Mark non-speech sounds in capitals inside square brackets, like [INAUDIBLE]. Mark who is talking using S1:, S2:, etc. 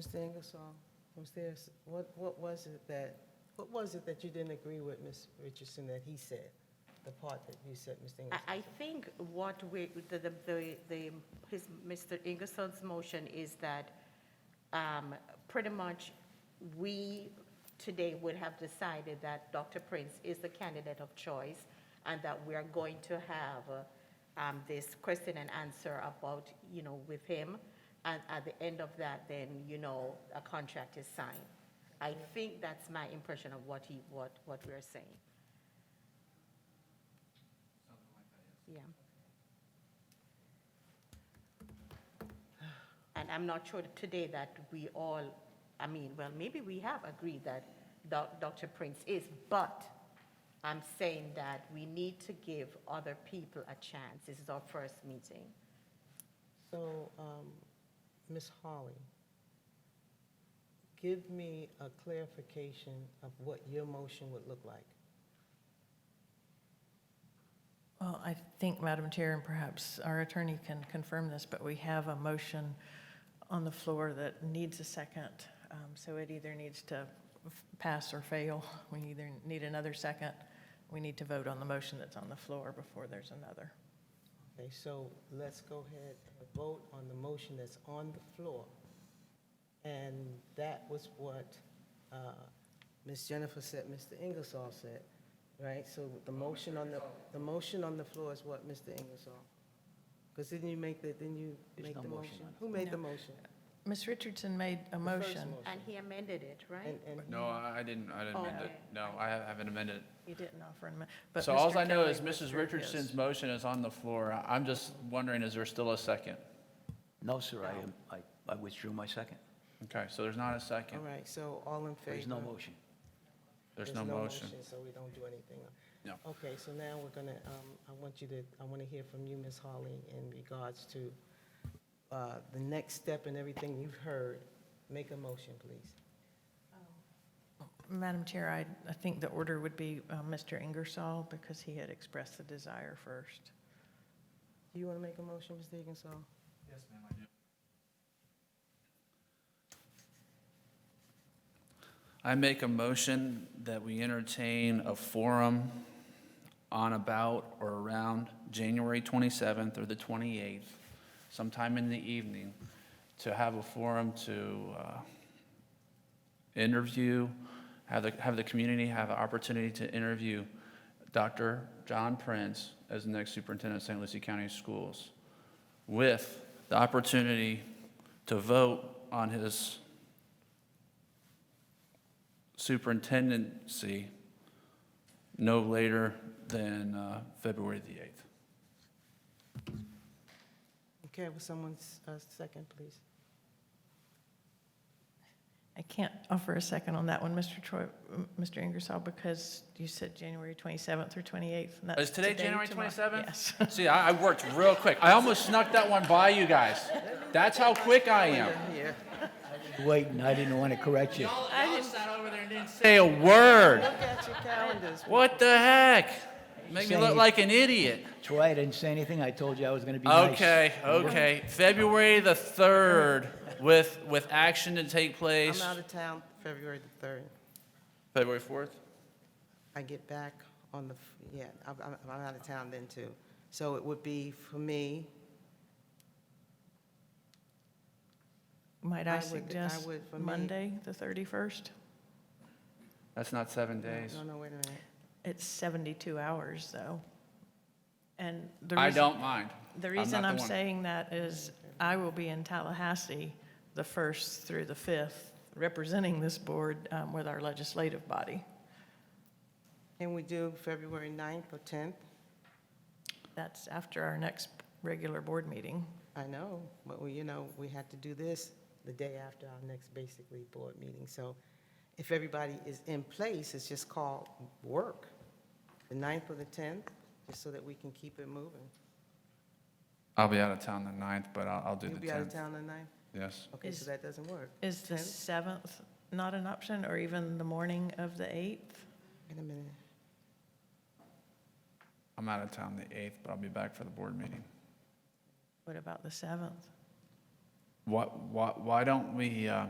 S1: Mr. Ingersoll, was there, s- what, what was it that, what was it that you didn't agree with, Ms. Richardson, that he said? The part that you said, Mr. Ingersoll?
S2: I, I think what we, the, the- the, the, his, Mr. Ingersoll's motion is that, um, pretty much, we today would have decided that Dr. Prince is the candidate of choice, and that we are going to have, uh, um, this question and answer about, you know, with him, and at the end of that, then, you know, a contract is signed. I think that's my impression of what he, what, what we're saying. Yeah. And I'm not sure today that we all, I mean, well, maybe we have agreed that Doc- Dr. Prince is, but I'm saying that we need to give other people a chance. This is our first meeting.
S1: So, um, Ms. Hawley, give me a clarification of what your motion would look like.
S3: Well, I think, Madam Chair, and perhaps our attorney can confirm this, but we have a motion on the floor that needs a second. Um, So it either needs to f- pass or fail. We either need another second. We need to vote on the motion that's on the floor before there's another.
S1: Okay, so let's go ahead and vote on the motion that's on the floor. And that was what uh, Ms. Jennifer said, Mr. Ingersoll said, right? So the motion on the, the motion on the floor is what, Mr. Ingersoll? Because didn't you make the, didn't you
S4: There's
S1: make
S4: no
S1: the
S4: motion
S1: motion?
S4: on it.
S1: Who made the
S3: No.
S1: motion?
S3: Ms. Richardson made a
S1: The first
S3: motion.
S2: And he amended it, right?
S1: And- and-
S4: No, I I didn't, I didn't amend it.
S2: Okay.
S4: No, I ha- haven't amended it.
S3: You didn't offer an amendment. but
S4: So
S3: Mr.
S4: alls I know
S3: Kelly
S4: is Mrs.
S3: withdrew his.
S4: Richardson's motion is on the floor. I- I'm just wondering, is there still a second?
S5: No, sir, I am, I, I withdrew my second.
S4: Okay, so there's not a second.
S1: All right, so all in favor?
S5: There's no motion.
S4: There's no motion.
S1: So we don't do anything.
S4: No.
S1: Okay, so now we're gonna, um, I want you to, I want to hear from you, Ms. Hawley, in regards to, uh, the next step and everything you've heard. Make a motion, please.
S3: Madam Chair, I, I think the order would be uh, Mr. Ingersoll because he had expressed the desire first.
S1: Do you want to make a motion, Ms. Dickinson?
S4: I make a motion that we entertain a forum on about or around January 27th or the 28th, sometime in the evening, to have a forum to uh, interview, have the, have the community have an opportunity to interview Dr. John Prince as the next superintendent of St. Lucie County Schools, with the opportunity to vote on his superintendency no later than uh, February the 8th.
S1: Okay, will someone, s- uh, second, please?
S3: I can't offer a second on that one, Mr. Troy, m- Mr. Ingersoll, because you said January 27th or 28th. and that's
S4: Is today January
S3: tomorrow.
S4: 27th? [LAUGHS]
S3: Yes. [LAUGHS]
S4: See, I I worked real quick. I almost snuck that one by you guys. That's how quick I am.
S1: Yeah.
S5: Waiting, I didn't want to correct you.
S4: Say a word.
S1: Look at your calendars.
S4: What the heck? Make me look
S5: Say-
S4: like an idiot.
S5: Troy, I didn't say anything, I told you I was going to be nice.
S4: Okay, okay. February the 3rd with, with action to take
S1: I'm
S4: place.
S1: out of town February the 3rd.
S4: February 4th?
S1: I get back on the, f- yeah, I'm, I'm- I'm out of town then too. So it would be for me.
S3: Might
S1: I
S3: I
S1: would- I
S3: suggest
S1: would for me-
S3: Monday, the 31st?
S4: That's not seven
S1: no,
S4: days.
S1: No, no, wait a minute.
S3: It's 72 hours, though. And the
S4: I
S3: reason,
S4: don't mind.
S3: the
S4: I'm not
S3: reason I'm
S4: one.
S3: saying that is I will be in Tallahassee the 1st through the 5th, representing this board um, with our legislative body.
S1: Can we do February 9th or 10th?
S3: That's after our next regular board meeting.
S1: I know, but we, you know, we had to do this the day after our next basically board meeting. So if everybody is in place, it's just called work, the 9th or the 10th, just so that we can keep it moving.
S4: I'll be out of town the 9th, but I'll, I'll do
S1: You'll
S4: the
S1: be out of
S4: 10th.
S1: town the 9th?
S4: Yes.
S1: Okay, so
S3: Is-
S1: that doesn't work.
S3: Is the
S1: Tenth?
S3: 7th not an option, or even the morning of the 8th?
S1: Wait a minute.
S4: I'm out of town the 8th, but I'll be back for the board meeting.
S3: What about the 7th?
S4: Why, why, why don't we, uh,